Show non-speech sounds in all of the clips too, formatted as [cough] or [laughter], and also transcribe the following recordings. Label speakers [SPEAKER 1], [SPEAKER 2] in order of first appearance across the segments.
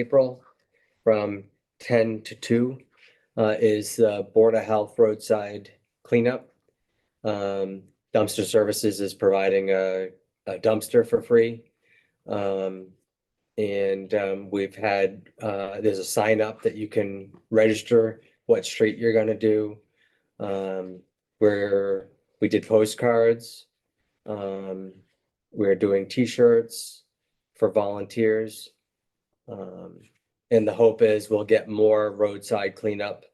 [SPEAKER 1] April from ten to two uh, is uh, Board of Health roadside cleanup. Um, Dumpster Services is providing a a dumpster for free. Um, and um, we've had, uh, there's a sign up that you can register what street you're gonna do. Um, where we did postcards. Um, we're doing T-shirts for volunteers. Um, and the hope is we'll get more roadside cleanup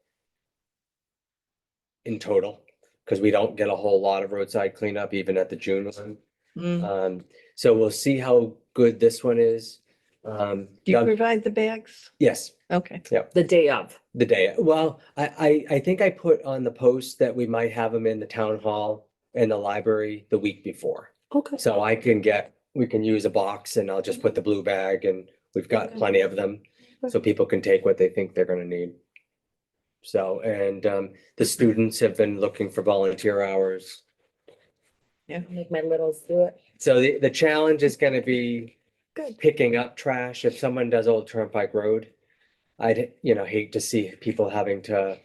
[SPEAKER 1] in total, because we don't get a whole lot of roadside cleanup even at the June one.
[SPEAKER 2] Mm.
[SPEAKER 1] Um, so we'll see how good this one is. Um,
[SPEAKER 2] Do you
[SPEAKER 1] Doug-
[SPEAKER 2] provide the bags?
[SPEAKER 1] yes,
[SPEAKER 2] Okay.
[SPEAKER 3] the day of.
[SPEAKER 1] the day. Well, I, I, I think I put on the post that we might have them in the town hall and the library the week before.
[SPEAKER 3] Okay.
[SPEAKER 1] So I can get, we can use a box and I'll just put the blue bag and we've got
[SPEAKER 3] Okay.
[SPEAKER 1] plenty of them. So people can take what they think they're gonna need. So, and um, the students have been looking for volunteer hours.
[SPEAKER 3] Make my littles do it.
[SPEAKER 1] So the, the challenge is gonna be
[SPEAKER 3] Good.
[SPEAKER 1] picking up trash. If someone does Old Turnpike Road, I'd, you know, hate to see people having to.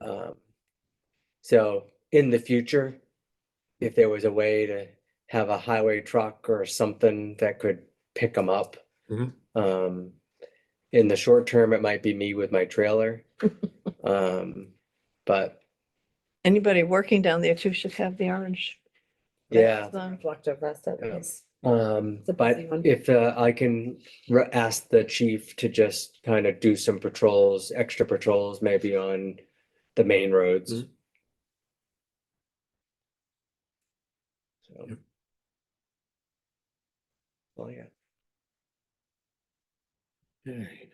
[SPEAKER 1] um, So in the future, if there was a way to have a highway truck or something that could pick them up.
[SPEAKER 4] Mhm.
[SPEAKER 1] Um, in the short term, it might be me with my trailer.
[SPEAKER 3] [laughs]
[SPEAKER 1] Um, but
[SPEAKER 2] Anybody working down there too should have the orange.
[SPEAKER 1] yeah.
[SPEAKER 2] bags on.
[SPEAKER 3] Blocked over us, that
[SPEAKER 1] Yeah.
[SPEAKER 3] is.
[SPEAKER 1] Um,
[SPEAKER 3] It's a
[SPEAKER 1] but
[SPEAKER 3] busy one.
[SPEAKER 1] if uh, I can re- ask the chief to just kind of do some patrols, extra patrols, maybe on the main roads.
[SPEAKER 4] Mhm.
[SPEAKER 1] So.
[SPEAKER 4] Yep.
[SPEAKER 1] Well, yeah,
[SPEAKER 4] Alright.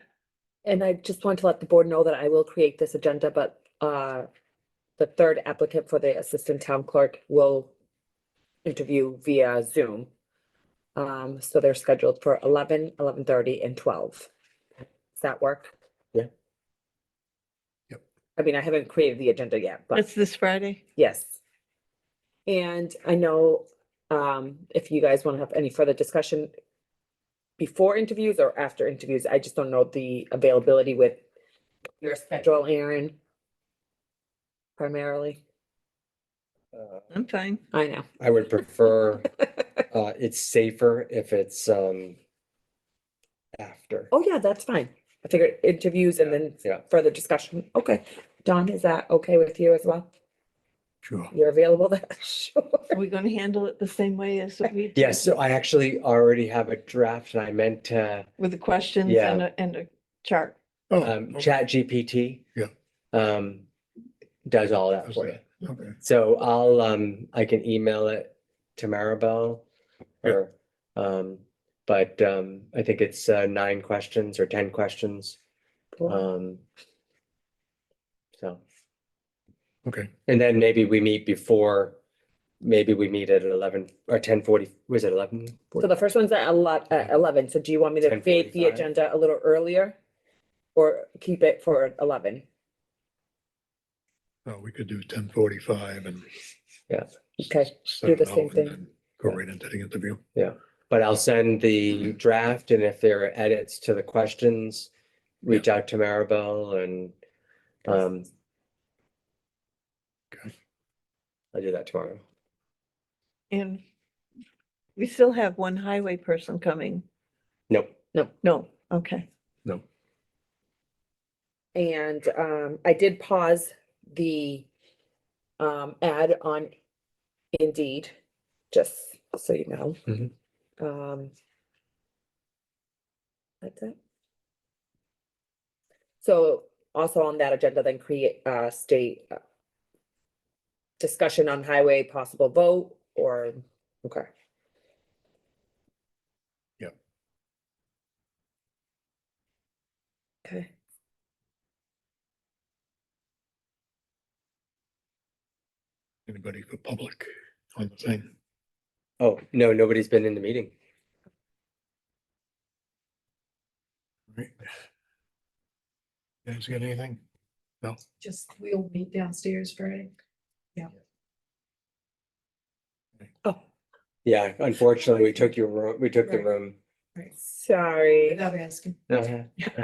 [SPEAKER 3] And I just want to let the board know that I will create this agenda, but uh, the third applicant for the assistant town clerk will interview via Zoom. Um, so they're scheduled for eleven, eleven thirty and twelve. Does that work?
[SPEAKER 1] Yeah.
[SPEAKER 4] Yep.
[SPEAKER 3] I mean, I haven't created the agenda yet, but.
[SPEAKER 2] That's this Friday.
[SPEAKER 3] Yes. And I know, um, if you guys want to have any further discussion before interviews or after interviews, I just don't know the availability with your schedule, Aaron. Primarily,
[SPEAKER 1] Uh,
[SPEAKER 2] I'm fine.
[SPEAKER 3] I know. [laughs]
[SPEAKER 1] I would prefer, uh, it's safer if it's, um, after.
[SPEAKER 3] Oh, yeah, that's fine. I figured interviews and then
[SPEAKER 1] Yeah.
[SPEAKER 3] further discussion. Okay. Don, is that okay with you as well?
[SPEAKER 4] Sure.
[SPEAKER 3] You're available then? [laughs] Sure.
[SPEAKER 2] Are we going to handle it the same way
[SPEAKER 1] [laughs]
[SPEAKER 2] as we? did
[SPEAKER 1] Yes, so I actually already have a draft and I meant to,
[SPEAKER 2] With the questions
[SPEAKER 1] Yeah.
[SPEAKER 2] and a, and a chart.
[SPEAKER 1] um,
[SPEAKER 4] Oh,
[SPEAKER 1] Chat GPT.
[SPEAKER 4] Yeah.
[SPEAKER 1] Um, does all that for you.
[SPEAKER 4] okay, okay.
[SPEAKER 1] So I'll, um, I can email it to Maribel.
[SPEAKER 4] Yeah.
[SPEAKER 1] Or, um, but, um, I think it's, uh, nine questions or ten questions,
[SPEAKER 3] Cool.
[SPEAKER 1] um. So,
[SPEAKER 4] Okay,
[SPEAKER 1] and then maybe we meet before, maybe we meet at eleven or ten forty, was it eleven?
[SPEAKER 3] So the first one's at a lot, at eleven, so do you want me to create the
[SPEAKER 1] 10:45.
[SPEAKER 3] agenda a little earlier? Or keep it for eleven?
[SPEAKER 4] well, Oh, we could do ten forty-five and.
[SPEAKER 3] Okay,
[SPEAKER 4] set it
[SPEAKER 3] the same
[SPEAKER 4] out and
[SPEAKER 3] thing.
[SPEAKER 4] then Go right into the interview.
[SPEAKER 1] But I'll send the draft and if there are edits to the questions, reach out to Maribel and, um.
[SPEAKER 4] Okay.
[SPEAKER 1] I'll do that tomorrow.
[SPEAKER 2] And we still have one highway person coming.
[SPEAKER 1] Nope.
[SPEAKER 2] No, okay.
[SPEAKER 4] No,
[SPEAKER 3] and um, I did pause the um, ad on Indeed, just so you know.
[SPEAKER 1] Mhm.
[SPEAKER 3] Um. That's it. So also on that agenda, then create uh state uh, discussion on highway possible vote or, okay.
[SPEAKER 4] Yep.
[SPEAKER 3] Okay.
[SPEAKER 4] anybody for public on the thing?
[SPEAKER 1] Oh, no, nobody's been in the meeting.
[SPEAKER 4] Right. Guys got anything?
[SPEAKER 5] Just, we'll meet downstairs Friday.
[SPEAKER 3] Oh.
[SPEAKER 1] Yeah, unfortunately, we took your room, we took the
[SPEAKER 5] Right.
[SPEAKER 1] room
[SPEAKER 3] Right.
[SPEAKER 6] Sorry.
[SPEAKER 3] Without asking.
[SPEAKER 5] Okay.